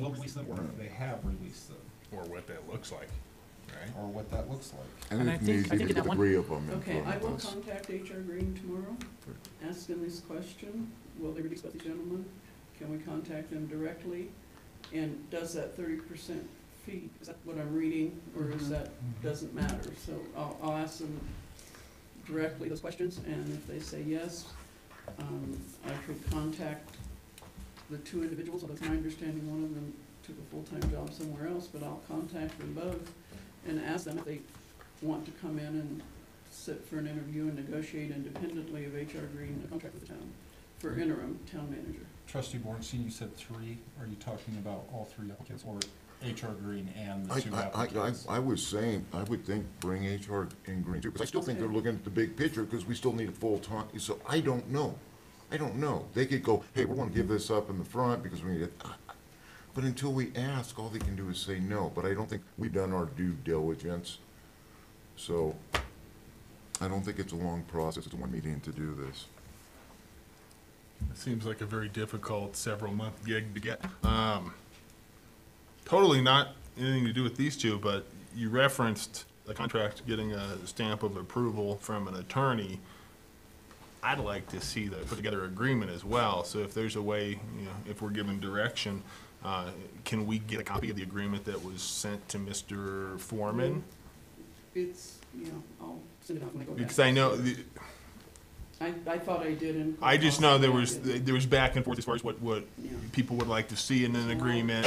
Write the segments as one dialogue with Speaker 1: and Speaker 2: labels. Speaker 1: release them, or if they have released them,
Speaker 2: or what that looks like, right?
Speaker 1: or what that looks like.
Speaker 3: And
Speaker 4: And I
Speaker 3: if
Speaker 4: think-
Speaker 3: needs,
Speaker 4: I
Speaker 3: you
Speaker 4: think
Speaker 3: can
Speaker 4: that
Speaker 3: get
Speaker 4: one-
Speaker 3: three of them in
Speaker 5: Okay, I
Speaker 3: front of
Speaker 5: will
Speaker 3: us.
Speaker 5: contact HR Green tomorrow, ask him this question, will they release the gentleman? Can we contact them directly? And does that thirty percent fee, is that what I'm reading, or is that, doesn't matter? So I'll, I'll ask them directly those questions, and if they say yes, um, I could contact the two individuals, although it's my understanding one of them took a full-time job somewhere else, but I'll contact them both and ask them if they want to come in and sit for an interview and negotiate independently of HR Green a contract with the town for interim town manager.
Speaker 1: Trustee Bornstein, you said three. Are you talking about all three applicants, or HR Green and the
Speaker 3: I,
Speaker 1: two
Speaker 3: I, I,
Speaker 1: applicants?
Speaker 3: I- I was saying, I would think bring HR in green too, because I still think they're looking at the big picture, because we still need a full time, so I don't know. I don't know. They could go, hey, we're gonna give this up in the front because we need it. I- I- But until we ask, all they can do is say no, but I don't think we've done our due diligence. So I don't think it's a long process, it's one meeting to do this.
Speaker 2: It seems like a very difficult several month gig to get. Um, totally not anything to do with these two, but you referenced a contract getting a stamp of approval from an attorney. I'd like to see the put together agreement as well. So if there's a way, you know, if we're given direction, uh, can we get a copy of the agreement that was sent to Mr. Foreman?
Speaker 5: It's, you know, I'll send it out when I go back.
Speaker 2: Because I know, the-
Speaker 5: I, I thought I did and.
Speaker 2: I just know there was,
Speaker 5: Yeah.
Speaker 2: there was back and forth as far as what, what
Speaker 5: Yeah.
Speaker 2: people would like to see in an agreement,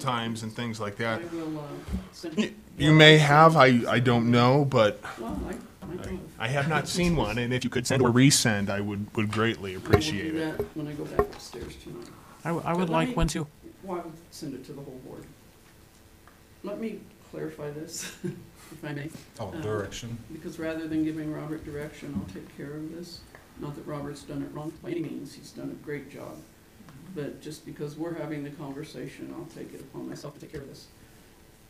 Speaker 2: times and things like
Speaker 5: I
Speaker 2: that.
Speaker 5: will, uh, send.
Speaker 2: You
Speaker 5: it.
Speaker 2: you may have, I, I don't know, but
Speaker 5: Well, I, I thought.
Speaker 2: I have not seen one, and if you could send or resend, I would, would greatly appreciate
Speaker 5: I will
Speaker 2: it.
Speaker 5: do that when I go back upstairs tonight.
Speaker 4: I, w- I
Speaker 5: But
Speaker 4: would
Speaker 5: let me-
Speaker 4: like one too.
Speaker 5: Well, I would send it to the whole board. Let me clarify this, if I may.
Speaker 1: Oh,
Speaker 5: Uh,
Speaker 1: direction.
Speaker 5: because rather than giving Robert direction, I'll take care of this. Not that Robert's done it wrong by any means, he's done a great job. But just because we're having the conversation, I'll take it upon myself to take care of this.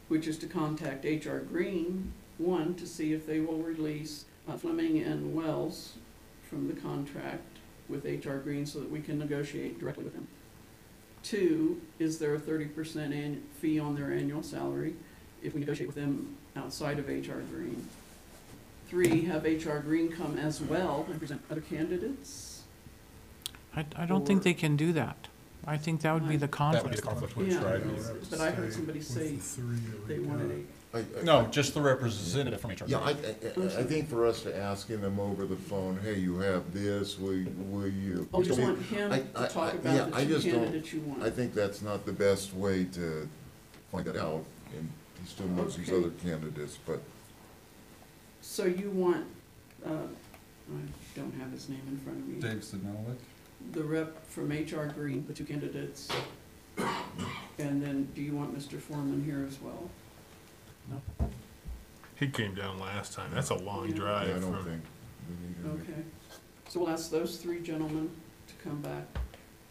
Speaker 5: Which is to contact HR Green, one, to see if they will release uh, Fleming and Wells from the contract with HR Green so that we can negotiate directly with them. Two, is there a thirty percent an, fee on their annual salary if we negotiate with them outside of HR Green? Three, have HR Green come as well and present other candidates.
Speaker 4: I, I don't think
Speaker 5: Or-
Speaker 4: they can do that. I think that would be the
Speaker 2: That would be
Speaker 4: conflict.
Speaker 2: the conflict with
Speaker 5: Yeah,
Speaker 2: right?
Speaker 5: But I heard somebody say they wanted
Speaker 3: I- I-
Speaker 1: No, just the representative from HR.
Speaker 3: Yeah, I, I, I- I think for us to asking them over the phone, hey, you have this, will, will you?
Speaker 5: a, oh, you
Speaker 3: I mean,
Speaker 5: want him
Speaker 3: I-
Speaker 5: to
Speaker 3: I- I-
Speaker 5: talk
Speaker 3: yeah,
Speaker 5: about
Speaker 3: I
Speaker 5: the two
Speaker 3: just don't-
Speaker 5: candidates you want.
Speaker 3: I think that's not the best way to find that out, and he still knows these
Speaker 5: Okay.
Speaker 3: other candidates, but
Speaker 5: So you want, uh, I don't have his name in front of me,
Speaker 1: Dave Sednalik.
Speaker 5: the rep from HR Green, the two candidates. And then do you want Mr. Foreman here as well?
Speaker 2: He came down last time, that's a long
Speaker 5: Yeah.
Speaker 3: I
Speaker 2: drive
Speaker 3: don't
Speaker 2: from,
Speaker 3: think we need to.
Speaker 5: Okay. So we'll ask those three gentlemen to come back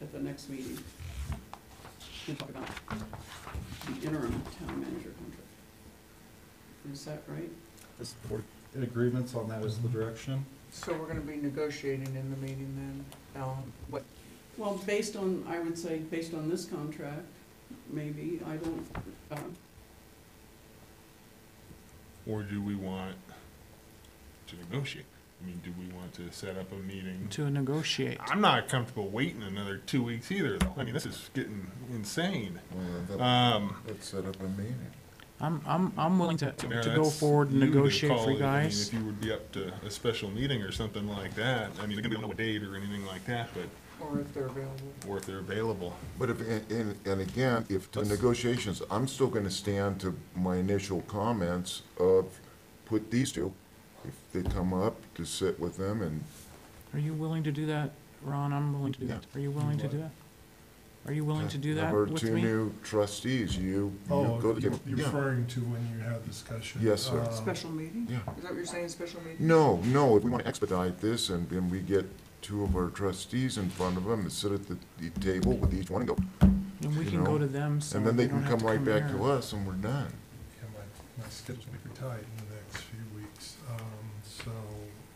Speaker 5: at the next meeting and talk about the interim town manager contract. Is that right?
Speaker 1: Agreements on that is the direction?
Speaker 6: So we're gonna be negotiating in the meeting then, Alan, what,
Speaker 5: Well, based on, I would say, based on this contract, maybe, I don't, um,
Speaker 2: or do we want to negotiate? I mean, do we want to set up a meeting?
Speaker 4: To negotiate.
Speaker 2: I'm not comfortable waiting another two weeks either, though. I mean, this is getting insane.
Speaker 3: Well, that-
Speaker 2: Um,
Speaker 3: Let's set up a meeting.
Speaker 4: I'm, I'm, I'm willing to,
Speaker 2: Mayor,
Speaker 4: to go
Speaker 2: that's
Speaker 4: forward and
Speaker 2: you to
Speaker 4: negotiate
Speaker 2: call
Speaker 4: for
Speaker 2: it.
Speaker 4: you guys.
Speaker 2: I mean, if you would be up to a special meeting or something like that, I mean, they don't know a date or anything like that, but,
Speaker 6: or if they're available?
Speaker 2: or if they're available.
Speaker 3: But if, and- and, and again, if the
Speaker 2: Let's-
Speaker 3: negotiations, I'm still gonna stand to my initial comments of, put these two, if they come up, to sit with them and
Speaker 4: Are you willing to do that, Ron? I'm willing to do
Speaker 3: Yeah.
Speaker 4: that. Are you willing to do that? Are you willing to do that
Speaker 3: Number
Speaker 4: with
Speaker 3: two
Speaker 4: me?
Speaker 3: new trustees, you, you
Speaker 7: Oh,
Speaker 3: go to
Speaker 7: you're
Speaker 3: them.
Speaker 7: you're
Speaker 3: Yeah,
Speaker 7: referring to when you had discussion?
Speaker 3: Yes, sir.
Speaker 7: Uh,
Speaker 6: Special meeting?
Speaker 3: yeah.
Speaker 6: Is that what you're saying, special meeting?
Speaker 3: No, no, if we want to expedite this and then we get two of our trustees in front of them and sit at the, the table with each one and go,
Speaker 4: And we
Speaker 3: you
Speaker 4: can go
Speaker 3: know,
Speaker 4: to them, so
Speaker 3: and then
Speaker 4: they
Speaker 3: they
Speaker 4: don't
Speaker 3: can
Speaker 4: have
Speaker 3: come
Speaker 4: to
Speaker 3: right back
Speaker 4: here.
Speaker 3: to us and we're done.
Speaker 7: Yeah, my, my schedule's pretty tight in the next few weeks, um, so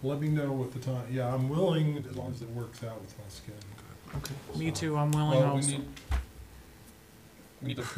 Speaker 7: let me know what the time, yeah, I'm willing, as long as it works out with my schedule.
Speaker 4: Me too, I'm willing
Speaker 1: Well, we
Speaker 4: also.
Speaker 1: need,
Speaker 7: we need to